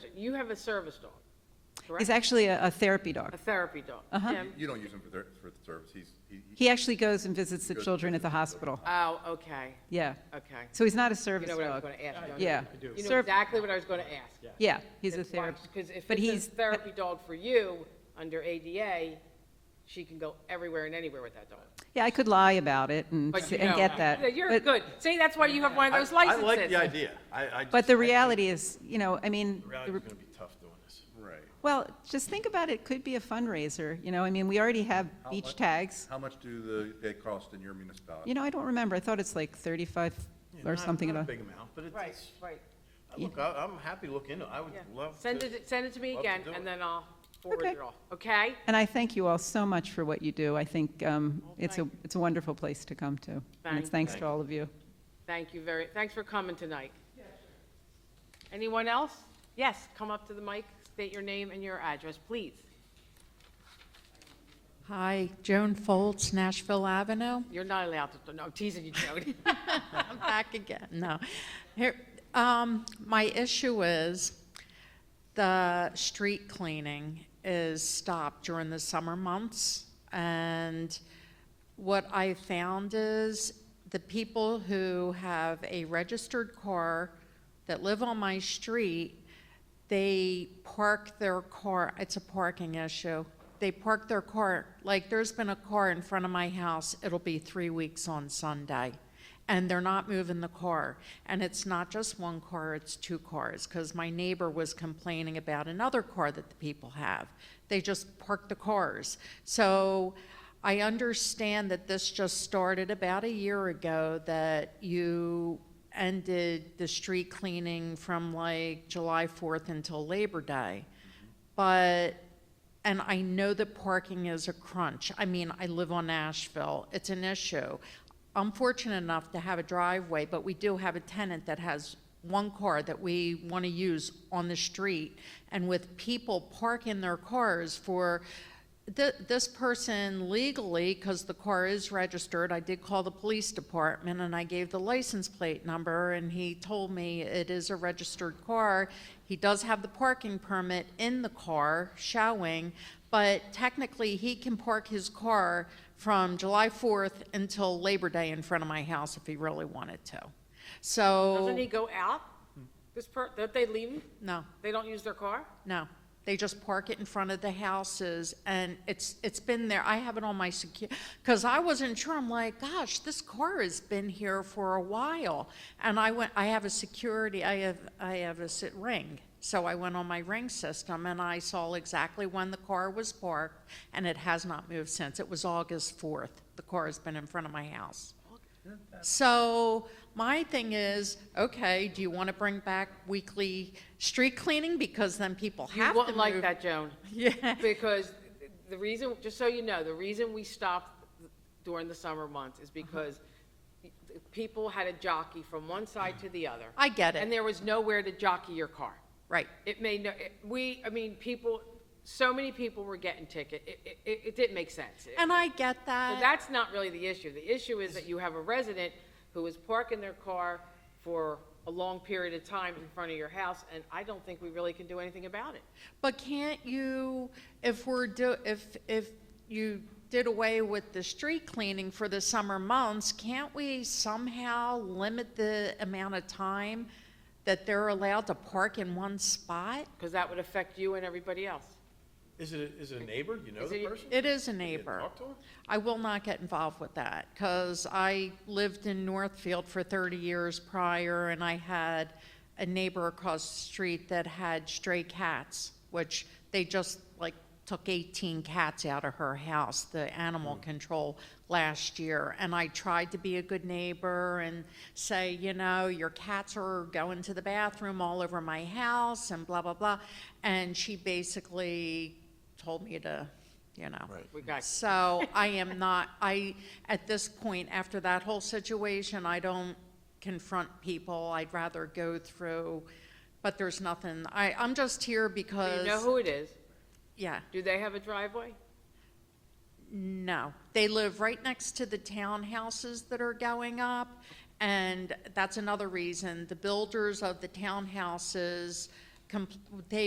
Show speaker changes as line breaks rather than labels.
Question. You have a service dog,
He's
correct?
actually a a therapy
A
dog.
therapy dog.
Uh-huh.
Tim?
You don't use him for ther- for the service, he's, he, he-
He actually goes and visits the children at the hospital.
Oh, okay,
Yeah.
okay.
So he's not a
You
service
know what I was
dog.
going to ask. don't you?
Yeah.
You know
Serv-
exactly what I was going to ask.
Yeah, he's a therapist.
Because if
But
it's
he's,
a therapy dog for you, under ADA, she can go everywhere and anywhere with that dog.
yeah, I could lie about it and
But
s-
you
and
know
get that.
You're
But-
good. See, that's why you have one of those
I- I like
licenses.
the idea. I, I.
But
just-
the
I think
reality is, you know, I mean,
The
the
reality's
re-
gonna be tough doing this.
right.
well, just think about it, could be a fundraiser, you know, I mean, we already have
How
beach
much-
tags.
How much do the, they cost in your municipality?
You know, I don't remember, I thought it's like 35
Yeah,
or
not-
something.
Not a
about-
big amount, but it's-
Right,
it's,
right,
look, I- I'm happy to look into it. I would
yeah.
love to.
Send it, send it to me
love to
again,
do
and
it.
then I'll forward
Okay.
it all, okay?
And I thank you all so much for what you do. I think um, it's a, it's a wonderful place to come to. And it's
Thank
thanks to all of you.
Thank you very, thanks for coming tonight. Anyone else? Yes, come up to the mic, state your name and your address, please.
Hi, Joan Foltz, Nashville Avenue.
You're not allowed to, no, I'm teasing you, Jody.
I'm back again, no. Here, um, my issue is the street cleaning is stopped during the summer months. And what I found is the people who have a registered car that live on my street, they park their car, it's a parking issue. They park their car, like, there's been a car in front of my house, it'll be three weeks on Sunday. And they're not moving the car. And it's not just one car, it's two cars, because my neighbor was complaining about another car that the people have. They just park the cars. So I understand that this just started about a year ago, that you ended the street cleaning from like July 4th until Labor Day. But, and I know that parking is a crunch. I mean, I live on Nashville, it's an issue. I'm fortunate enough to have a driveway, but we do have a tenant that has one car that we want to use on the street. And with people parking their cars for, Th- this person legally, because the car is registered, I did call the police department and I gave the license plate number and he told me it is a registered car. He does have the parking permit in the car showing, but technically he can park his car from July 4th until Labor Day in front of my house if he really wanted to. So.
Doesn't he go out? This per, don't they leave him?
No.
They don't use their car?
No, they just park it in front of the houses, and it's, it's been there, I have it on my secu, because I wasn't sure, I'm like, gosh, this car has been here for a while. And I went, I have a security, I have, I have a sit ring, so I went on my ring system, and I saw exactly when the car was parked, and it has not moved since, it was August fourth, the car has been in front of my house. So my thing is, okay, do you want to bring back weekly street cleaning? Because then people
You
have to move.
wouldn't like that, Joan.
Yeah.
Because the reason, just so you know, the reason we stopped during the summer months
Uh-huh.
is because people had a jockey from one side to the other.
I get
And
it.
there was nowhere to jockey your car.
Right.
It made no, it- we, I mean, people, so many people were getting ticket. It, it- it, it didn't make sense. It-
And I get
So
that.
that's not really the issue. The issue is that you have a resident who is parking their car for a long period of time in front of your house, and I don't think we really can do anything about it.
But can't you, if we're do, if, if you did away with the street cleaning for the summer months, can't we somehow limit the amount of time that they're allowed to park in one spot?
Because that would affect you and everybody else.
Is it, a- is it a neighbor? You know
Is
the
it-
person?
It is a
You
neighbor.
Talk to him?
I will not get involved with that because I lived in Northfield for 30 years prior and I had a neighbor across the street that had stray cats, which they just like took 18 cats out of her house, the animal control last year. And I tried to be a good neighbor and say, you know, your cats are going to the bathroom all over my house and blah, blah, blah. And she basically told me to, you know.
Right.
We got
So I am not, I, at this point, after that whole situation, I don't confront people. I'd rather go through, but there's nothing. I, I'm just here
Do you know
because,
who it is?
yeah,
Do they have a driveway?
no. They live right next to the townhouses that are going up. And that's another reason. The builders of the townhouses com- they